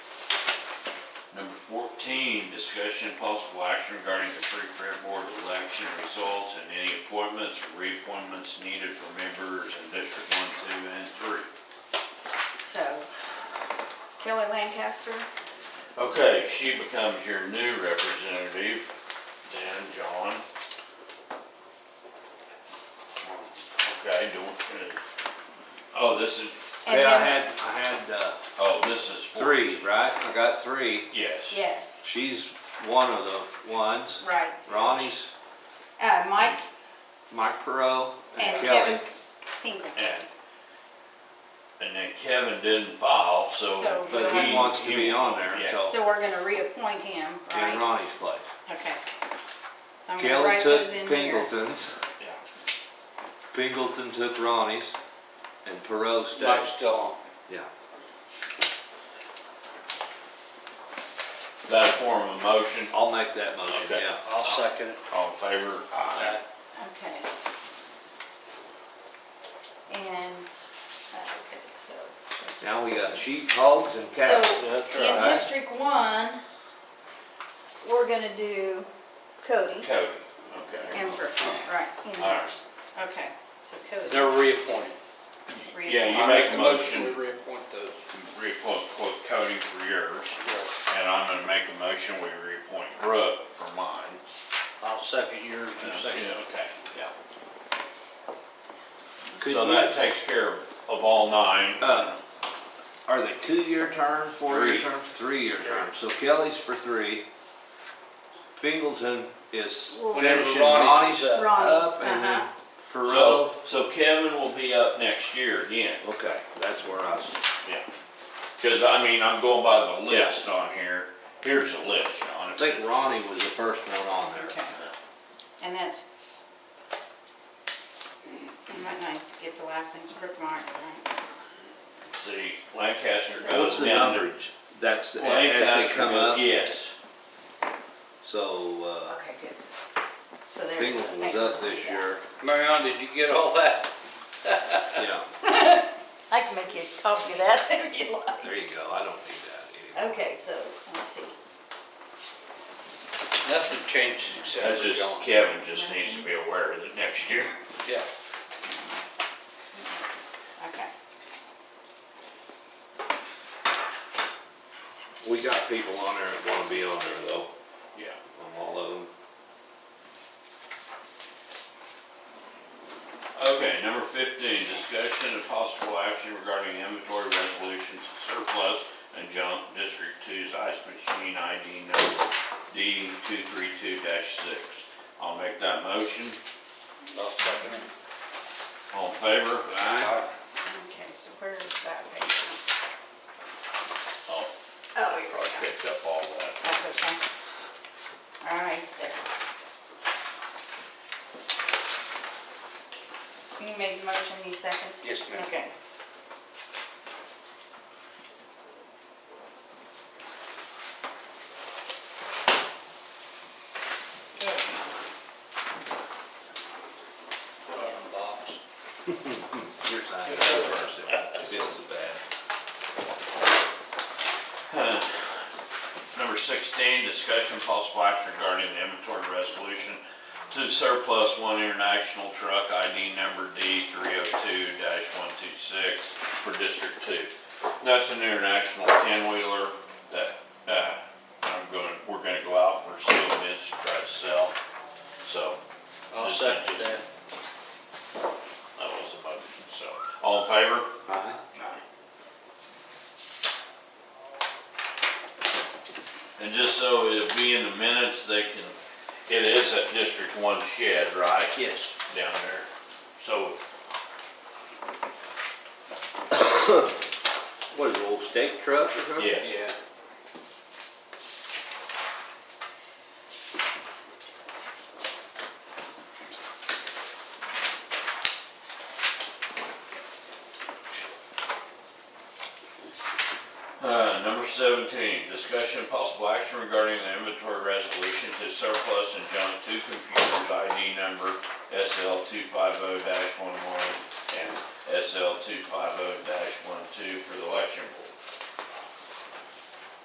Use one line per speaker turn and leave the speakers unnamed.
Fourteen, discussion and possible action regarding the free fair board election results and any appointments or reappointments needed for members in District One, Two, and Three.
So Kelly Lancaster,
Okay, she becomes your new representative, then John. Okay, do, uh, oh, this is,
And
Yeah, I
then-
had, I had, uh,
oh, this is. four-
three, right? I got three.
Yes.
yes,
She's one of the ones.
right.
Ronnie's
Uh, Mike
Mike Perot
and
and Kelly.
Kevin Pingleton.
And, and then Kevin didn't file, so.
So-
But he wants to be on there,
Yeah.
so,
So we're gonna reappoint him,
in
right?
Ronnie's place.
Okay. So I'm gonna
Kelly
write
took
those in here.
Pingleton's,
yeah.
Pingleton took Ronnie's, and Perot stayed.
Mike's still on.
Yeah.
That form of motion,
I'll make that motion,
Okay.
yeah.
I'll second it.
all in favor? Aye.
Okay. And, uh, okay, so.
Now we got sheep, hogs, and
So
cattle. That's
in
right.
District One, we're gonna do Cody
Cody, okay.
and Brooke, right? in there.
Alright.
Okay, so Cody.
They're reappointed.
Yeah, you
I
make a motion,
We reappoint those.
reappoint quote Cody for yours,
Yes.
and I'm gonna make a motion, we reappoint Brooke for mine.
I'll second yours, you
Yeah,
second.
Okay, yeah.
Could
So
you-
that takes care of, of all nine.
Uh, Are they two-year term, four-year
Three.
term? Three-year term. So Kelly's for three. Pingleton is
Well-
Whenever
finishing
Ronnie's
Ronnie's
up.
Ronnie's,
up and then
uh-huh.
So,
Perot.
so Kevin will be up next year again,
Okay, that's where I was.
yeah. Cause I mean, I'm going by the list on here, here's the list, John.
I think Ronnie was the first one on there.
Okay. And that's, I might not get the last name, Brooke Martin, right?
See, Lancaster
What's
goes
the
down to.
numberage? That's, the- as they
Lancaster
come
goes,
up,
yes.
so uh,
Okay, good. So there's. the
Pingleton was up
paper.
this year,
Marion, did you get all that?
yeah.
I can make you a copy of that if you like.
There you go, I don't need that anymore.
Okay, so, let's see.
Nothing changes except
That's
for
just,
John.
Kevin just needs to be aware that next year.
Yeah.
Okay.
We got people on there that wanna be on there though,
Yeah.
on all of them.
Okay, number fifteen, discussion and possible action regarding inventory resolution to surplus and junk District Two's ice machine ID number D two three two six. I'll make that motion.
I'll second it.
All in favor? Aye.
Okay, so where's that page?
Oh,
Oh,
I
you're
probably
right.
picked up all that.
That's okay. All right, there. You made the motion, you second?
Yes, ma'am.
Okay.
Put it
Uh,
in the box.
Your sign is the first, it feels bad.
Number sixteen, discussion and possible action regarding the inventory resolution to surplus one international truck ID number D three oh two one two six for District Two. And That's an international ten-wheeler that, uh, I'm going, we're gonna go out for sealed bids to try to sell. So
I'll
Just-
second
just-
that.
that was the motion, so, all in favor?
Aye.
And just so it'll be in the minutes, they can, it is at District One shed, right?
Yes.
Down there, so,
What is it, old steak truck or something?
yes.
Yeah.
Uh, number seventeen, discussion of possible action regarding the inventory resolution to surplus and junk two computers ID number SL two five oh one one and SL two five oh one two for the election board.